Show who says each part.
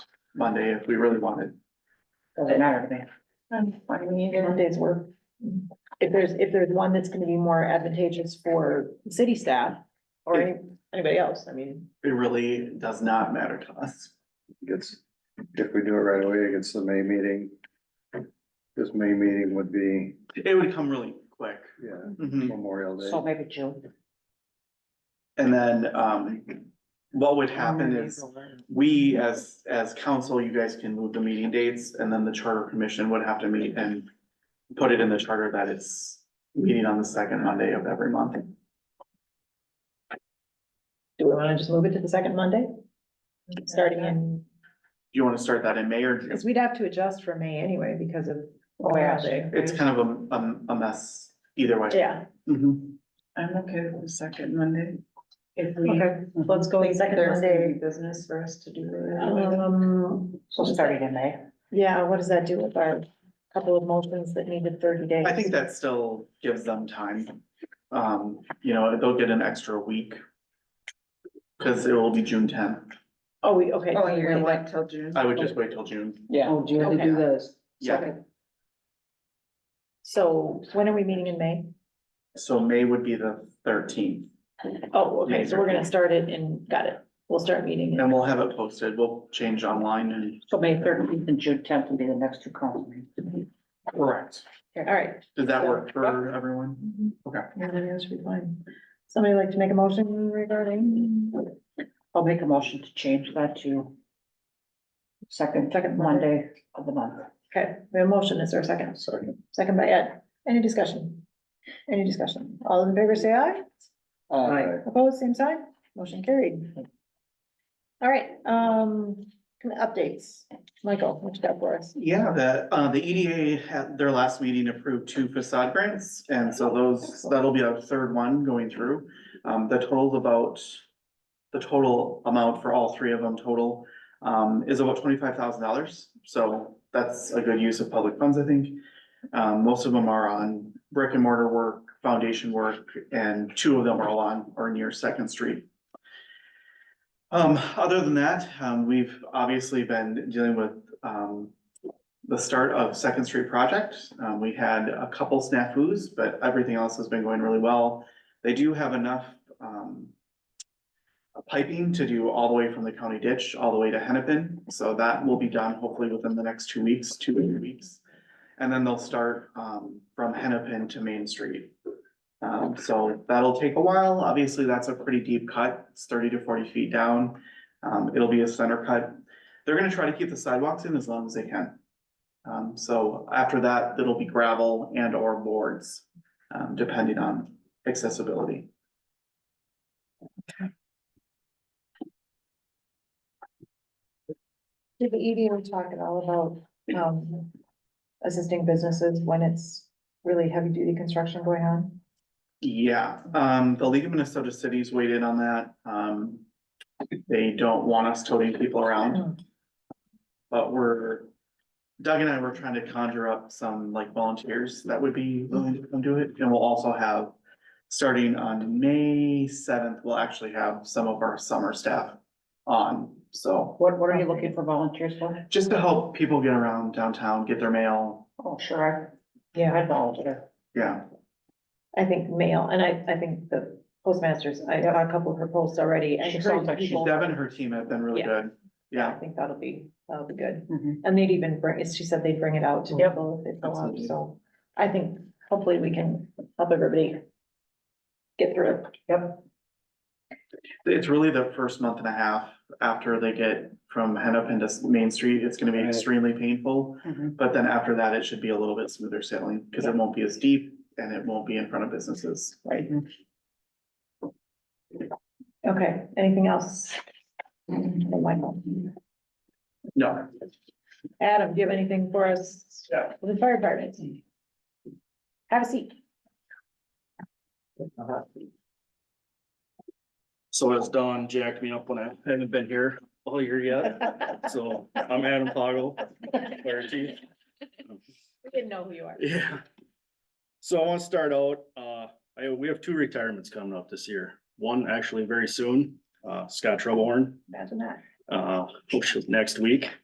Speaker 1: Monday if we really wanted.
Speaker 2: Doesn't matter to me.
Speaker 3: I'm fine, we need
Speaker 4: One
Speaker 3: it.
Speaker 4: Um, day's work. If there's, if there's one that's gonna be more advantageous for city staff or any- anybody else, I mean.
Speaker 1: It really does not matter to us.
Speaker 5: Gets, if we do it right away, it gets the May meeting. This May meeting would be,
Speaker 1: It would come really quick.
Speaker 5: yeah,
Speaker 1: Mhm.
Speaker 5: Memorial
Speaker 2: So
Speaker 5: Day.
Speaker 2: maybe June.
Speaker 1: And then, um, what would happen is we as, as council, you guys can move the meeting dates and then the charter commission would have to meet and put it in the charter that it's meeting on the second Monday of every month.
Speaker 4: Do we wanna just move it to the second Monday? Starting in,
Speaker 1: Do you want to start that in May or June?
Speaker 4: because we'd have to adjust for May anyway because of Memorial Day.
Speaker 1: It's kind of a, a, a mess either way.
Speaker 4: Yeah,
Speaker 1: Mhm.
Speaker 3: I'm okay with the second Monday. If we.
Speaker 4: okay, let's go with second
Speaker 3: There's
Speaker 4: Monday.
Speaker 3: any business for us to do. later.
Speaker 4: Um,
Speaker 2: So starting in May.
Speaker 4: yeah, what does that do with our couple of motions that needed thirty days?
Speaker 1: I think that still gives them time. Um, you know, they'll get an extra week. Cause it will be June tenth.
Speaker 4: Oh, we, okay.
Speaker 3: Oh, you're gonna wait till June?
Speaker 1: I would just wait till June.
Speaker 2: Yeah.
Speaker 6: Oh, do you have to do this?
Speaker 1: Yeah,
Speaker 4: So when are we meeting in May?
Speaker 1: so May would be the thirteenth
Speaker 4: Oh, okay,
Speaker 1: Yeah.
Speaker 4: so we're gonna start it and, got it. We'll start meeting. in-
Speaker 1: and we'll have it posted. We'll change online and.
Speaker 2: So May thirteenth and June tenth will be the next two council meetings.
Speaker 1: Correct.
Speaker 4: All right.
Speaker 1: Does that work for everyone?
Speaker 4: Everything else should be fine. Somebody like to make a motion regarding
Speaker 2: I'll make a motion to change that to second, second Monday of the month.
Speaker 4: Okay, we have a motion, is there a second?
Speaker 5: Second.
Speaker 4: Second by Ed, any discussion? Any discussion? All in favor, say aye.
Speaker 6: Uh,
Speaker 4: Opposed, same sign, motion carried. All right, um, kind of updates, Michael, what you got for us?
Speaker 1: Yeah, the, uh, the EDA had their last meeting approved two facade grants, and so those, that'll be our third one going through. Um, the total's about, the total amount for all three of them total, um, is about twenty-five thousand dollars. So that's a good use of public funds, I think. Um, most of them are on brick and mortar work, foundation work, and two of them are all on or near Second Street. Um, other than that, um, we've obviously been dealing with, um, the start of Second Street project. Um, we had a couple snafus, but everything else has been going really well. They do have enough, um, piping to do all the way from the county ditch, all the way to Hennepin. So that will be done hopefully within the next two weeks, two to three weeks. And then they'll start, um, from Hennepin to Main Street. Um, so that'll take a while. Obviously, that's a pretty deep cut. It's thirty to forty feet down. Um, it'll be a center cut. They're gonna try to keep the sidewalks in as long as they can. Um, so after that, it'll be gravel and or boards, um, depending on accessibility.
Speaker 4: Did the EDO talk at all about, um, assisting businesses when it's really heavy duty construction going on?
Speaker 1: Yeah, um, the League of Minnesota Cities weighed in on that. Um, they don't want us toting people around. But we're, Doug and I were trying to conjure up some like volunteers that would be willing to come do it. And we'll also have, starting on May seventh, we'll actually have some of our summer staff on, so.
Speaker 2: What, what are you looking for volunteers for?
Speaker 1: Just to help people get around downtown, get their mail,
Speaker 2: Oh, sure, I,
Speaker 4: Yeah,
Speaker 2: I volunteer.
Speaker 1: yeah.
Speaker 4: I think mail, and I, I think the postmasters, I got a couple of her posts already. I
Speaker 2: She
Speaker 4: encourage
Speaker 2: sounds like she's
Speaker 4: people-
Speaker 1: Deb and her team have been really
Speaker 4: Yeah.
Speaker 1: good,
Speaker 4: I
Speaker 1: yeah.
Speaker 4: think that'll be, that'll be good.
Speaker 2: Mhm.
Speaker 4: And they'd even bring, she said they'd bring it out to
Speaker 2: Yep.
Speaker 4: people if they go out,
Speaker 1: Absolutely.
Speaker 4: so I think hopefully we can help everybody get through it.
Speaker 1: It's really the first month and a half after they get from Hennepin to Main Street, it's gonna be
Speaker 5: Right.
Speaker 1: extremely painful.
Speaker 2: Mhm.
Speaker 1: But then after that, it should be a little bit smoother sailing, because it won't be as deep and it won't be in front of businesses.
Speaker 4: Right. Okay, anything else? from Michael?
Speaker 1: No,
Speaker 4: Adam, do you have anything for us?
Speaker 1: Yeah.
Speaker 4: with The fire department? Have a seat.
Speaker 7: So as Don jacked me up when I haven't been here all year yet, so I'm Adam Poggle, fire chief.
Speaker 4: We didn't know who you are.
Speaker 7: Yeah. So I want to start out, uh, I, we have two retirements coming up this year. One actually very soon, uh, Scott Troublehorn,
Speaker 4: Imagine that.
Speaker 7: uh, which is next week.